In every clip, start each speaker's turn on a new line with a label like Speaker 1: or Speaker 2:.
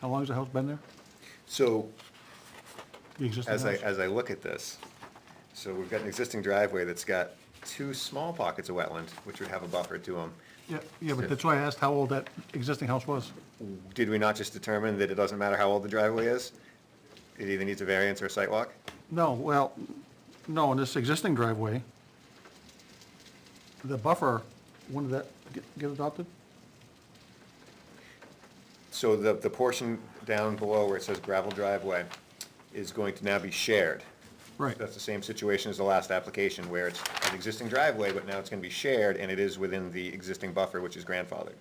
Speaker 1: How long has the house been there?
Speaker 2: So
Speaker 1: The existing
Speaker 2: as I,
Speaker 1: house?
Speaker 2: as I look at this, so we've got an existing driveway that's got two small pockets of wetland, which would have a buffer to them.
Speaker 1: Yeah, yeah, but that's why I asked how old that existing house was.
Speaker 2: Did we not just determine that it doesn't matter how old the driveway is? It either needs a variance or a site walk?
Speaker 1: No, well, no, in this existing driveway, the buffer, when did that get- get adopted?
Speaker 2: So the, the portion down below where it says gravel driveway is going to now be shared.
Speaker 1: Right,
Speaker 2: That's the same situation as the last application where it's an existing driveway, but now it's gonna be shared and it is within the existing buffer, which is grandfathered.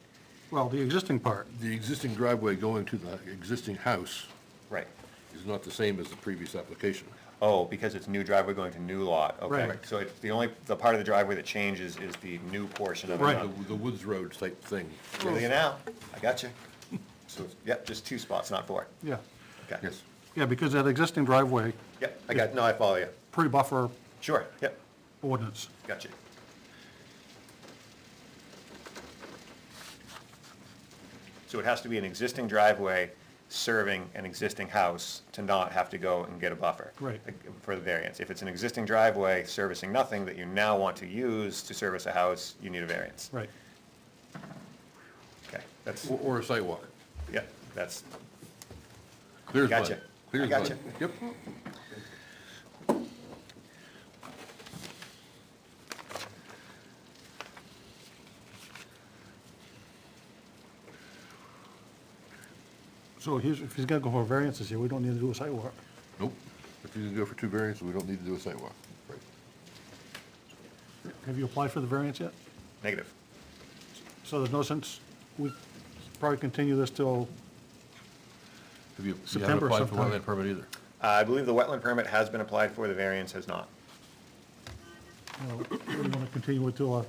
Speaker 1: well, the existing part,
Speaker 3: The existing driveway going to the existing house
Speaker 2: Right.
Speaker 3: is not the same as the previous application.
Speaker 2: Oh, because it's new driveway going to new lot, okay.
Speaker 1: Right.
Speaker 2: So it's the only, the part of the driveway that changes is the new portion of it.
Speaker 1: Right.
Speaker 3: The- The Woods Road type thing.
Speaker 2: Really now, I got you. So, yep, just two spots, not four.
Speaker 1: yeah.
Speaker 2: Okay.
Speaker 3: Yes.
Speaker 1: Yeah, because that existing driveway,
Speaker 2: Yep, I got, no, I follow you.
Speaker 1: pre-buffer
Speaker 2: Sure, yep,
Speaker 1: ordinance.
Speaker 2: got you. So it has to be an existing driveway serving an existing house to not have to go and get a buffer.
Speaker 1: Right.
Speaker 2: For the variance. If it's an existing driveway servicing nothing that you now want to use to service a house, you need a variance.
Speaker 1: Right.
Speaker 2: Okay, that's,
Speaker 3: Or- Or a sidewalk.
Speaker 2: yeah, that's,
Speaker 3: Clear as mud.
Speaker 2: Gotcha.
Speaker 3: Clear as
Speaker 2: I
Speaker 3: mud.
Speaker 2: gotcha.
Speaker 3: Yep.
Speaker 1: So he's, if he's gonna go for variances here, we don't need to do a sidewalk.
Speaker 3: Nope. If you can go for two variances, we don't need to do a sidewalk. Right.
Speaker 1: Have you applied for the variance yet?
Speaker 2: negative.
Speaker 1: So there's no sense, we probably continue this till,
Speaker 3: Have you, you haven't
Speaker 1: September
Speaker 3: applied for
Speaker 1: sometime.
Speaker 3: wetland permit either?
Speaker 2: I believe the wetland permit has been applied for, the variance has not.
Speaker 1: you know, we wanna continue it till our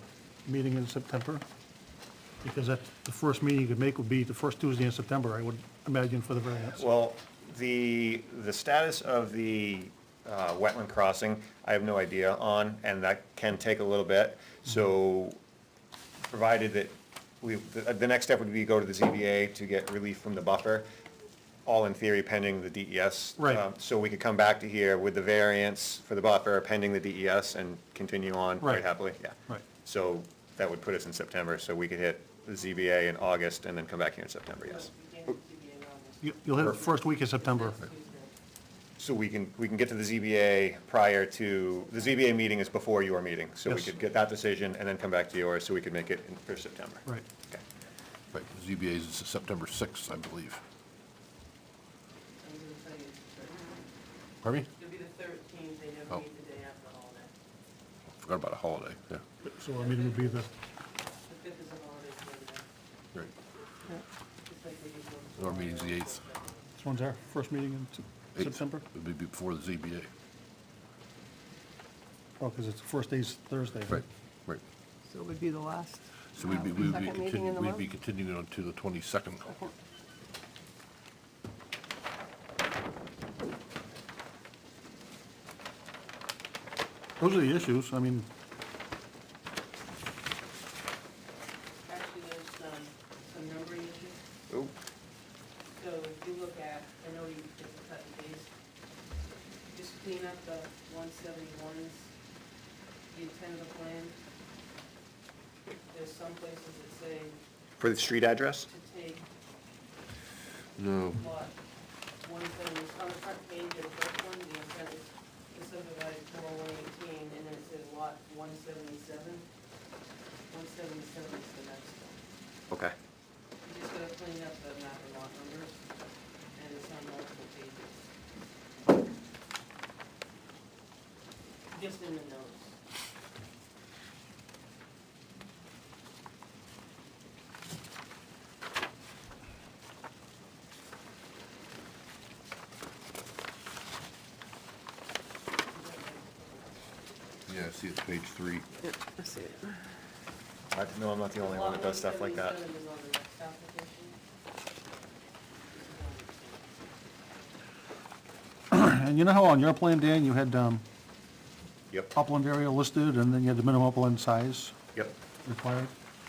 Speaker 1: meeting in September? Because that's, the first meeting you could make would be the first Tuesday in September, I would imagine, for the variance.
Speaker 2: Well, the, the status of the uh, wetland crossing, I have no idea on, and that can take a little bit.
Speaker 1: Mm-hmm.
Speaker 2: So provided that we, the the next step would be go to the ZBA to get relief from the buffer, all in theory pending the DES.
Speaker 1: Right.
Speaker 2: Um, So we could come back to here with the variance for the buffer pending the DES and continue on quite
Speaker 1: Right.
Speaker 2: happily, yeah.
Speaker 1: Right.
Speaker 2: So that would put us in September, so we could hit the ZBA in August and then come back here in September, yes.
Speaker 3: Oh.
Speaker 1: You- You'll hit the first week of September.
Speaker 2: So we can, we can get to the ZBA prior to, the ZBA meeting is before your meeting, so we
Speaker 1: Yes.
Speaker 2: could get that decision and then come back to yours, so we could make it in- for September.
Speaker 1: Right.
Speaker 2: Okay.
Speaker 3: Right, ZBA is September 6th, I believe. Pardon me?
Speaker 4: It'll be the thirteenth, they
Speaker 3: Oh.
Speaker 4: don't meet the day after holiday.
Speaker 3: Forgot about a holiday, yeah.
Speaker 1: So our meeting would be the,
Speaker 4: The fifth is a holiday, so it's
Speaker 3: Right.
Speaker 4: like we did one.
Speaker 3: Our meeting's the eighth.
Speaker 1: this one's our first meeting in Sep-
Speaker 3: Eighth.
Speaker 1: September?
Speaker 3: It would be before the ZBA.
Speaker 1: Oh, because it's the first day's Thursday.
Speaker 3: Right, right.
Speaker 5: So it would be the last.
Speaker 3: So we'd be,
Speaker 5: uh,
Speaker 3: we'd be
Speaker 5: second meeting in
Speaker 3: continuing,
Speaker 5: the
Speaker 3: we'd
Speaker 5: month?
Speaker 3: be continuing on to the 22nd.
Speaker 1: Those are the issues, I mean,
Speaker 4: Actually, there's some, some numbering issues.
Speaker 2: Ooh,
Speaker 4: So if you look at, I know you did the cut and paste, just clean up the one seventy-ones, the intent of the plan. There's some places that say to
Speaker 2: For the street address?
Speaker 4: take
Speaker 3: No,
Speaker 4: lot one seventy, on the front page of the first one, the intent is to subdivide four one eighteen, and then it says lot one seventy-seven. One seventy-seven is the next one.
Speaker 2: Okay.
Speaker 4: You just gotta clean up the map and lot numbers, and it's on multiple pages. Just in the notes.
Speaker 3: yeah, I see it's page three.
Speaker 5: Yeah, I see it.
Speaker 2: I know I'm not the only one that does stuff like that.
Speaker 4: Lot 177 is on the next application.
Speaker 1: and you know how on your plan, Dan, you had um,
Speaker 2: Yep,
Speaker 1: upland area listed, and then you had the minimum upland size
Speaker 2: yep,
Speaker 1: required?